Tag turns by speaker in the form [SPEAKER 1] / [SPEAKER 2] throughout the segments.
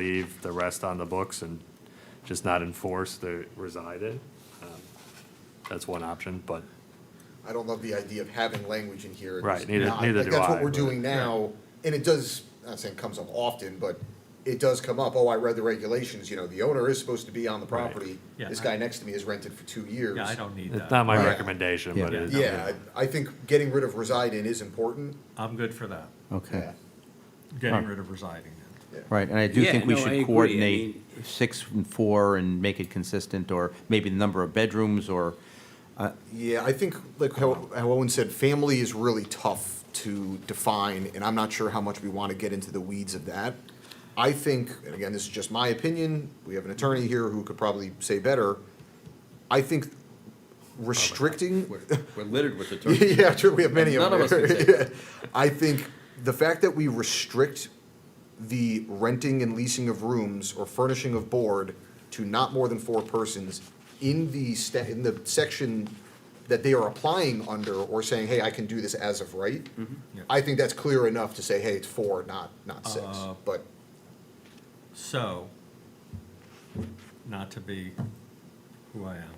[SPEAKER 1] leave the rest on the books and just not enforce the reside in. Um, That's one option, but
[SPEAKER 2] I don't love the idea of having language in here.
[SPEAKER 1] Right,
[SPEAKER 2] It's
[SPEAKER 1] neither-
[SPEAKER 2] not-
[SPEAKER 1] neither
[SPEAKER 2] like,
[SPEAKER 1] do
[SPEAKER 2] That's what
[SPEAKER 1] I,
[SPEAKER 2] we're
[SPEAKER 1] but-
[SPEAKER 2] doing now, and it does, I'm not saying it comes up often, but it does come up, oh, I read the regulations, you know, the owner is supposed to be on the
[SPEAKER 1] Right.
[SPEAKER 2] property.
[SPEAKER 3] Yeah,
[SPEAKER 2] This
[SPEAKER 3] I-
[SPEAKER 2] guy next to me has rented for two years.
[SPEAKER 3] Yeah, I don't need
[SPEAKER 1] it's not
[SPEAKER 3] that.
[SPEAKER 1] my
[SPEAKER 2] Right.
[SPEAKER 1] recommendation, but it is.
[SPEAKER 2] Yeah, I, I think getting rid of reside in is important.
[SPEAKER 3] I'm good for that,
[SPEAKER 4] Okay,
[SPEAKER 3] getting
[SPEAKER 4] Huh.
[SPEAKER 3] rid of residing in.
[SPEAKER 2] Yeah.
[SPEAKER 4] right, and I do
[SPEAKER 5] Yeah,
[SPEAKER 4] think we
[SPEAKER 5] no, I agree.
[SPEAKER 4] should
[SPEAKER 5] I
[SPEAKER 4] coordinate
[SPEAKER 5] mean-
[SPEAKER 4] six and four and make it consistent, or maybe the number of bedrooms, or,
[SPEAKER 2] Yeah, I think, like how how Owen said, family is really tough to define, and I'm not sure how much we want to get into the weeds of that. I think, and again, this is just my opinion, we have an attorney here who could probably say better, I think restricting,
[SPEAKER 6] We're Oh we're littered with attorneys.
[SPEAKER 2] yeah, true, we have many of them.
[SPEAKER 6] None of us can say that.
[SPEAKER 2] I think the fact that we restrict the renting and leasing of rooms or furnishing of board to not more than four persons in the sta- in the section that they are applying under or saying, hey, I can do this as of right.
[SPEAKER 6] Mm-hmm.
[SPEAKER 3] Yeah.
[SPEAKER 2] I think that's clear enough to say, hey, it's four, not, not six,
[SPEAKER 3] Uh,
[SPEAKER 2] but,
[SPEAKER 3] So, not to be who I am.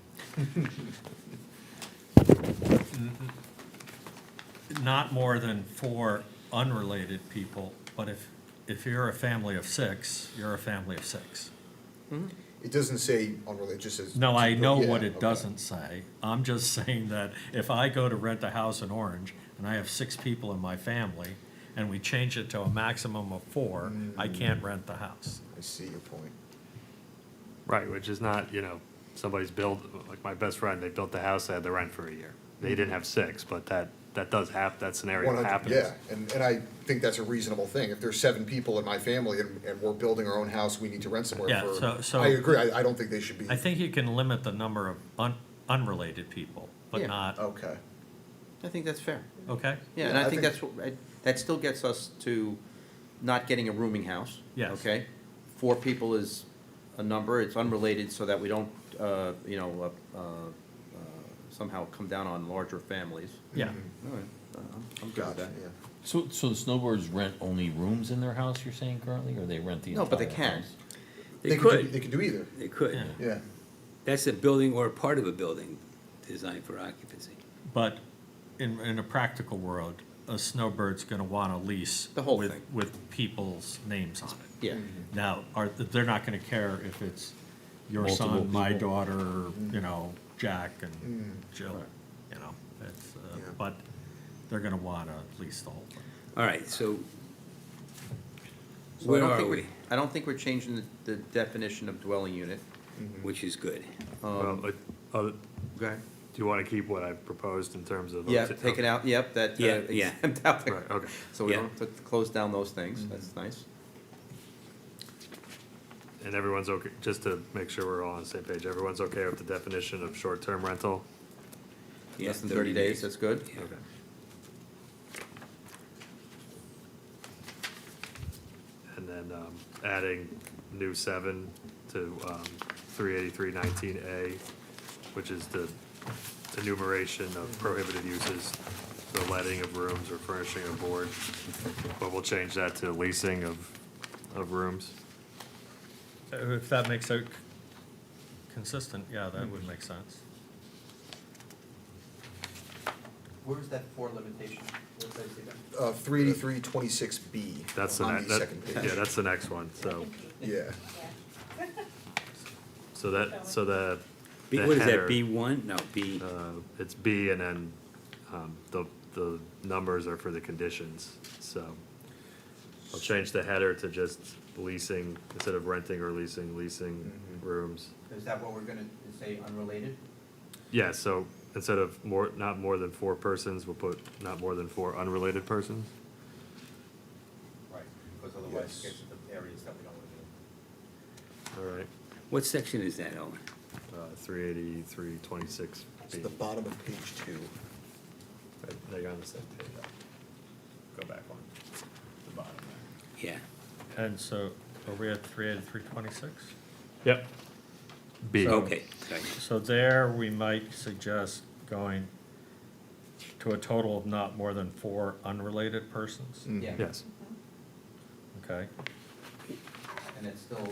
[SPEAKER 3] Mm-hmm. Not more than four unrelated people, but if, if you're a family of six, you're a family of six.
[SPEAKER 2] it doesn't say unrelated, it just says.
[SPEAKER 3] No, I know what
[SPEAKER 2] Yeah,
[SPEAKER 3] it
[SPEAKER 2] okay.
[SPEAKER 3] doesn't say. I'm just saying that if I go to rent a house in Orange and I have six people in my family and we change it to a maximum of four,
[SPEAKER 4] Mm.
[SPEAKER 3] I can't rent the house.
[SPEAKER 2] I see your point.
[SPEAKER 1] Right, which is not, you know, somebody's built, like my best friend, they built the house, they had the rent for a year. They didn't have six, but that, that does hap, that scenario
[SPEAKER 2] 100
[SPEAKER 1] happens.
[SPEAKER 2] Yeah, and, and I think that's a reasonable thing. If there's seven people in my family and, and we're building our own house, we need to rent somewhere
[SPEAKER 3] Yeah,
[SPEAKER 2] for.
[SPEAKER 3] so- so-
[SPEAKER 2] I agree, I, I don't think they should be.
[SPEAKER 3] I think you can limit the number of un, unrelated people, but
[SPEAKER 4] Yeah. Uh,
[SPEAKER 3] not,
[SPEAKER 2] Okay,
[SPEAKER 4] I think that's fair.
[SPEAKER 3] okay?
[SPEAKER 4] Yeah, and
[SPEAKER 2] Yeah, I
[SPEAKER 4] I think
[SPEAKER 2] think-
[SPEAKER 4] that's, what- I- that still gets us to not getting a rooming house.
[SPEAKER 3] Yes.
[SPEAKER 4] Okay? Four people is a number, it's unrelated, so that we don't, uh, you know, uh, uh, uh, somehow come down on larger families.
[SPEAKER 3] Yeah,
[SPEAKER 4] All right, uh, I'm- I'm good with
[SPEAKER 2] gotcha,
[SPEAKER 4] that.
[SPEAKER 2] yeah.
[SPEAKER 7] So, so the snowbirds rent only rooms in their house, you're saying currently, or they rent the
[SPEAKER 4] No, but they
[SPEAKER 7] entire
[SPEAKER 4] can.
[SPEAKER 7] house?
[SPEAKER 5] They
[SPEAKER 2] could do- They
[SPEAKER 5] could,
[SPEAKER 2] could do either,
[SPEAKER 5] they could.
[SPEAKER 3] yeah.
[SPEAKER 2] yeah.
[SPEAKER 5] That's a building or a part of a building designed for occupancy.
[SPEAKER 3] But in, in a practical world, a snowbird's gonna wanna lease.
[SPEAKER 4] The whole
[SPEAKER 3] with-
[SPEAKER 4] thing.
[SPEAKER 3] With people's names on it.
[SPEAKER 5] Mm-hmm.
[SPEAKER 4] Yeah,
[SPEAKER 3] Now, are, they're not gonna care if it's your
[SPEAKER 7] Multiple
[SPEAKER 3] son, my
[SPEAKER 7] people.
[SPEAKER 3] daughter, you know, Jack and Jill, you know, it's, uh,
[SPEAKER 2] Yeah.
[SPEAKER 3] but they're gonna wanna lease the whole thing.
[SPEAKER 5] All right, so
[SPEAKER 4] So I
[SPEAKER 5] where
[SPEAKER 4] don't
[SPEAKER 5] are
[SPEAKER 4] think
[SPEAKER 5] we?
[SPEAKER 4] I don't think we're changing the- the definition of dwelling unit. Mm-hmm.
[SPEAKER 5] Which is good.
[SPEAKER 1] Well, it- uh,
[SPEAKER 4] Go ahead.
[SPEAKER 1] Do you want to keep what I've proposed in terms of?
[SPEAKER 4] Yeah, take it out, yep, that uh,
[SPEAKER 5] Yeah, yeah.
[SPEAKER 4] exempt out the-
[SPEAKER 1] Right, okay.
[SPEAKER 4] So we
[SPEAKER 5] Yeah. Mm-hmm.
[SPEAKER 4] don't have to close down those things, that's nice.
[SPEAKER 1] And everyone's okay, just to make sure we're all on the same page, everyone's okay with the definition of short-term rental?
[SPEAKER 5] Yeah,
[SPEAKER 4] Less than thirty days, that's good.
[SPEAKER 5] Yeah.
[SPEAKER 1] Okay. And then, um, adding new seven to, um, three eighty-three nineteen A, which is the enumeration of prohibited uses, the letting of rooms or furnishing of board, but we'll change that to leasing of, of rooms.
[SPEAKER 3] Uh, If that makes it c- consistent, yeah, that would make sense.
[SPEAKER 4] Where's that for limitation? Where does I see that?
[SPEAKER 2] Uh, three eighty-three twenty-six B
[SPEAKER 1] That's the,
[SPEAKER 2] on
[SPEAKER 1] ne-
[SPEAKER 2] the
[SPEAKER 1] that,
[SPEAKER 2] second
[SPEAKER 1] yeah,
[SPEAKER 2] page,
[SPEAKER 1] that's the next one, so,
[SPEAKER 2] yeah.
[SPEAKER 1] so that, so the.
[SPEAKER 5] B-
[SPEAKER 1] the
[SPEAKER 5] What is
[SPEAKER 1] header-
[SPEAKER 5] that, B one? No, B,
[SPEAKER 1] Uh, It's B and then um, the, the numbers are for the conditions, so. I'll change the header to just leasing, instead of renting or leasing, leasing rooms.
[SPEAKER 4] Is that what we're gonna say unrelated?
[SPEAKER 1] Yeah, so instead of more, not more than four persons, we'll put not more than four unrelated persons.
[SPEAKER 4] Right, because
[SPEAKER 2] otherwise it gets
[SPEAKER 4] to the areas that we don't wanna do.
[SPEAKER 1] All right, Uh,
[SPEAKER 5] what section is that, Owen?
[SPEAKER 1] three eighty-three twenty-six
[SPEAKER 2] It's
[SPEAKER 1] B.
[SPEAKER 2] the bottom of page two.
[SPEAKER 1] Now you're on the same page. Go back one, the bottom
[SPEAKER 5] Yeah,
[SPEAKER 3] And so, are we at three eighty-three twenty-six?
[SPEAKER 1] there. Yep. B.
[SPEAKER 5] okay, sorry.
[SPEAKER 3] So there, we might suggest going to a total of not more than
[SPEAKER 4] Mm.
[SPEAKER 5] Mm.
[SPEAKER 3] four unrelated persons,
[SPEAKER 4] Yeah.
[SPEAKER 1] Yes.
[SPEAKER 3] okay?
[SPEAKER 4] and it's still